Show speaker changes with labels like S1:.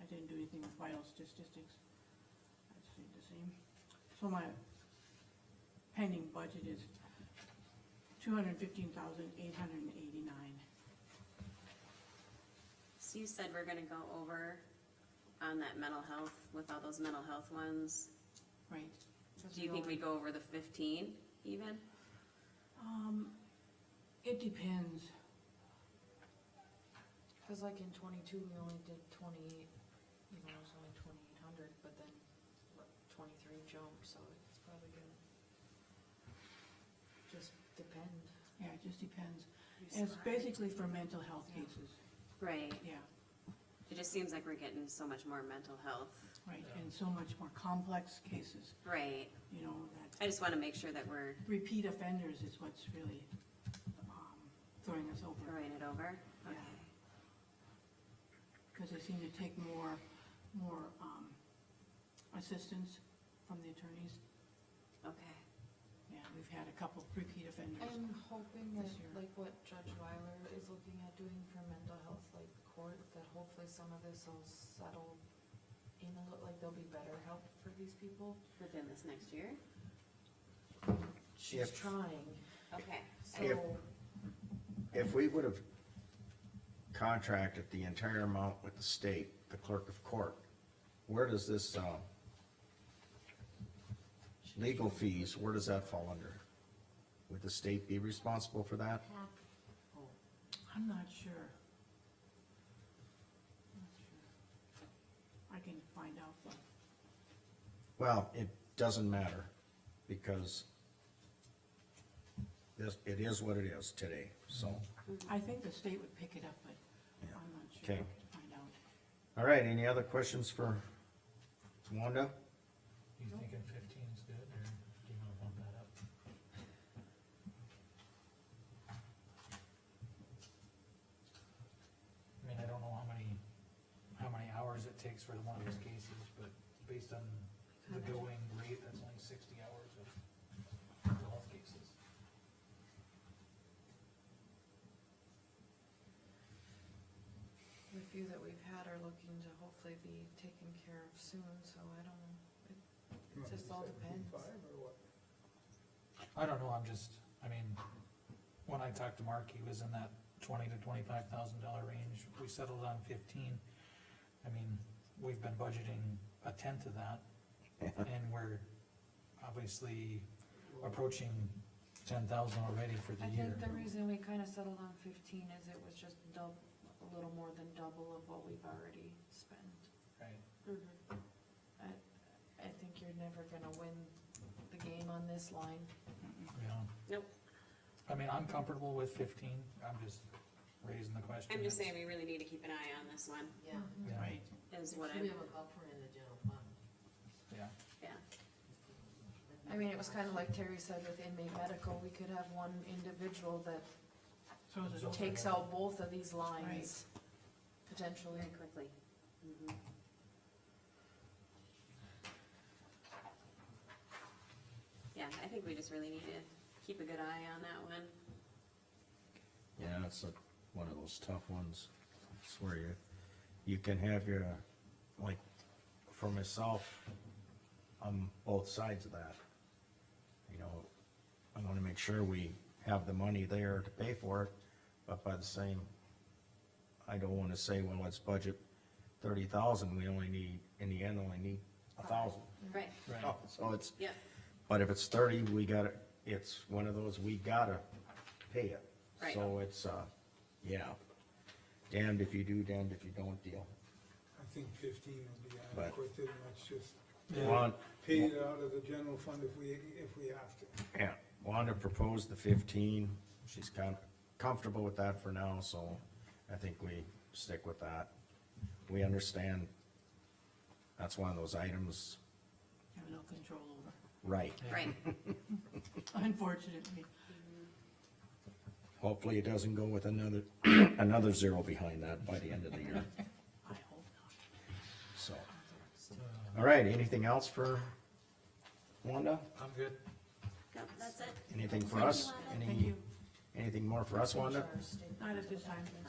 S1: I didn't do anything with biostatistics. I stayed the same. So my pending budget is two hundred fifteen thousand eight hundred and eighty-nine.
S2: So you said we're gonna go over on that mental health, with all those mental health ones,
S1: Right.
S2: do you think we go over the fifteen even?
S1: Um, it depends.
S3: Cause like in twenty-two, we only did twenty-eight, you know, it was only twenty-eight hundred, but then what, twenty-three jumped, so it's probably gonna just depend.
S1: Yeah, it just depends. It's basically for mental health cases.
S2: Right,
S1: Yeah,
S2: it just seems like we're getting so much more mental health,
S1: right, and so much more complex cases,
S2: right,
S1: you know, that
S2: I just wanna make sure that we're
S1: repeat offenders is what's really, um, throwing us over.
S2: throwing it over.
S1: Yeah.
S2: Okay.
S1: Cause they seem to take more, more, um, assistance from the attorneys.
S2: Okay,
S1: Yeah, we've had a couple repeat offenders.
S3: I'm hoping that,
S1: This year.
S3: like what Judge Weiler is looking at doing for mental health, like court, that hopefully some of this will settle in a little, like there'll be better help for these people.
S2: within this next year?
S3: She's
S4: If-
S3: trying,
S2: Okay,
S3: so.
S4: If- If we would have contracted the entire amount with the state, the clerk of court, where does this, um, legal fees, where does that fall under? Would the state be responsible for that?
S1: I'm not sure. Not sure. I can find out, but,
S4: Well, it doesn't matter, because this, it is what it is today, so.
S1: I think the state would pick it up, but I'm
S4: Yeah.
S1: not sure. I
S4: Okay.
S1: could Find out.
S4: All right, any other questions for Wanda?
S5: Do you thinking fifteen is good, or do you wanna bump that up? I mean, I don't know how many, how many hours it takes for one of those cases, but based on the going rate, that's only sixty hours of mental health cases.
S3: The few that we've had are looking to hopefully be taken care of soon, so I don't know, it, it just all depends.
S5: I don't know, I'm just, I mean, when I talked to Mark, he was in that twenty to twenty-five thousand dollar range, we settled on fifteen. I mean, we've been budgeting a tenth of that, and we're obviously approaching ten thousand already for the
S3: I
S5: year.
S3: think the reason we kinda settled on fifteen is it was just dub, a little more than double of what we've already spent.
S5: Right.
S2: Mm-hmm.
S3: I, I think you're never gonna win the game on this line.
S5: Yeah.
S2: Nope.
S5: I mean, I'm comfortable with fifteen, I'm just raising the question.
S2: I'm just saying we really need to keep an eye on this one,
S6: Yeah,
S5: Yeah,
S1: Right,
S2: is
S6: should
S2: what
S6: we
S2: I'm,
S6: have a buffer in the general fund?
S5: yeah.
S2: yeah,
S3: I mean, it was kinda like Terry said with inmate medical, we could have one individual that
S1: so is it,
S3: takes out both of these lines, potentially.
S2: very quickly. Mhm. Yeah, I think we just really need to keep a good eye on that one.
S4: Yeah, it's a, one of those tough ones. It's where you, you can have your, like, for myself, on both sides of that. You know, I wanna make sure we have the money there to pay for it, but by the same, I don't wanna say, well, let's budget thirty thousand, we only need, in the end, only need a thousand.
S2: Right,
S5: Right,
S4: So it's,
S2: yep,
S4: but if it's thirty, we gotta, it's one of those, we gotta pay it.
S2: Right.
S4: So it's, uh, yeah, damned if you do, damned if you don't deal.
S7: I think fifteen would be
S4: But-
S7: adequate, and let's just
S4: Juan,
S7: pay it out of the general fund if we, if we have to.
S4: yeah, Wanda proposed the fifteen, she's kind comfortable with that for now, so I think we stick with that. We understand, that's one of those items,
S1: have no control over,
S4: right,
S2: right,
S1: unfortunately.
S4: hopefully it doesn't go with another, another zero behind that by the end of the year,
S1: I hope not.
S4: so. All right, anything else for Wanda?
S5: I'm good.
S2: Yep, that's it.
S4: Anything for us?
S1: Thank
S4: Any,
S1: you.
S4: anything more for us, Wanda?
S1: Not at this time.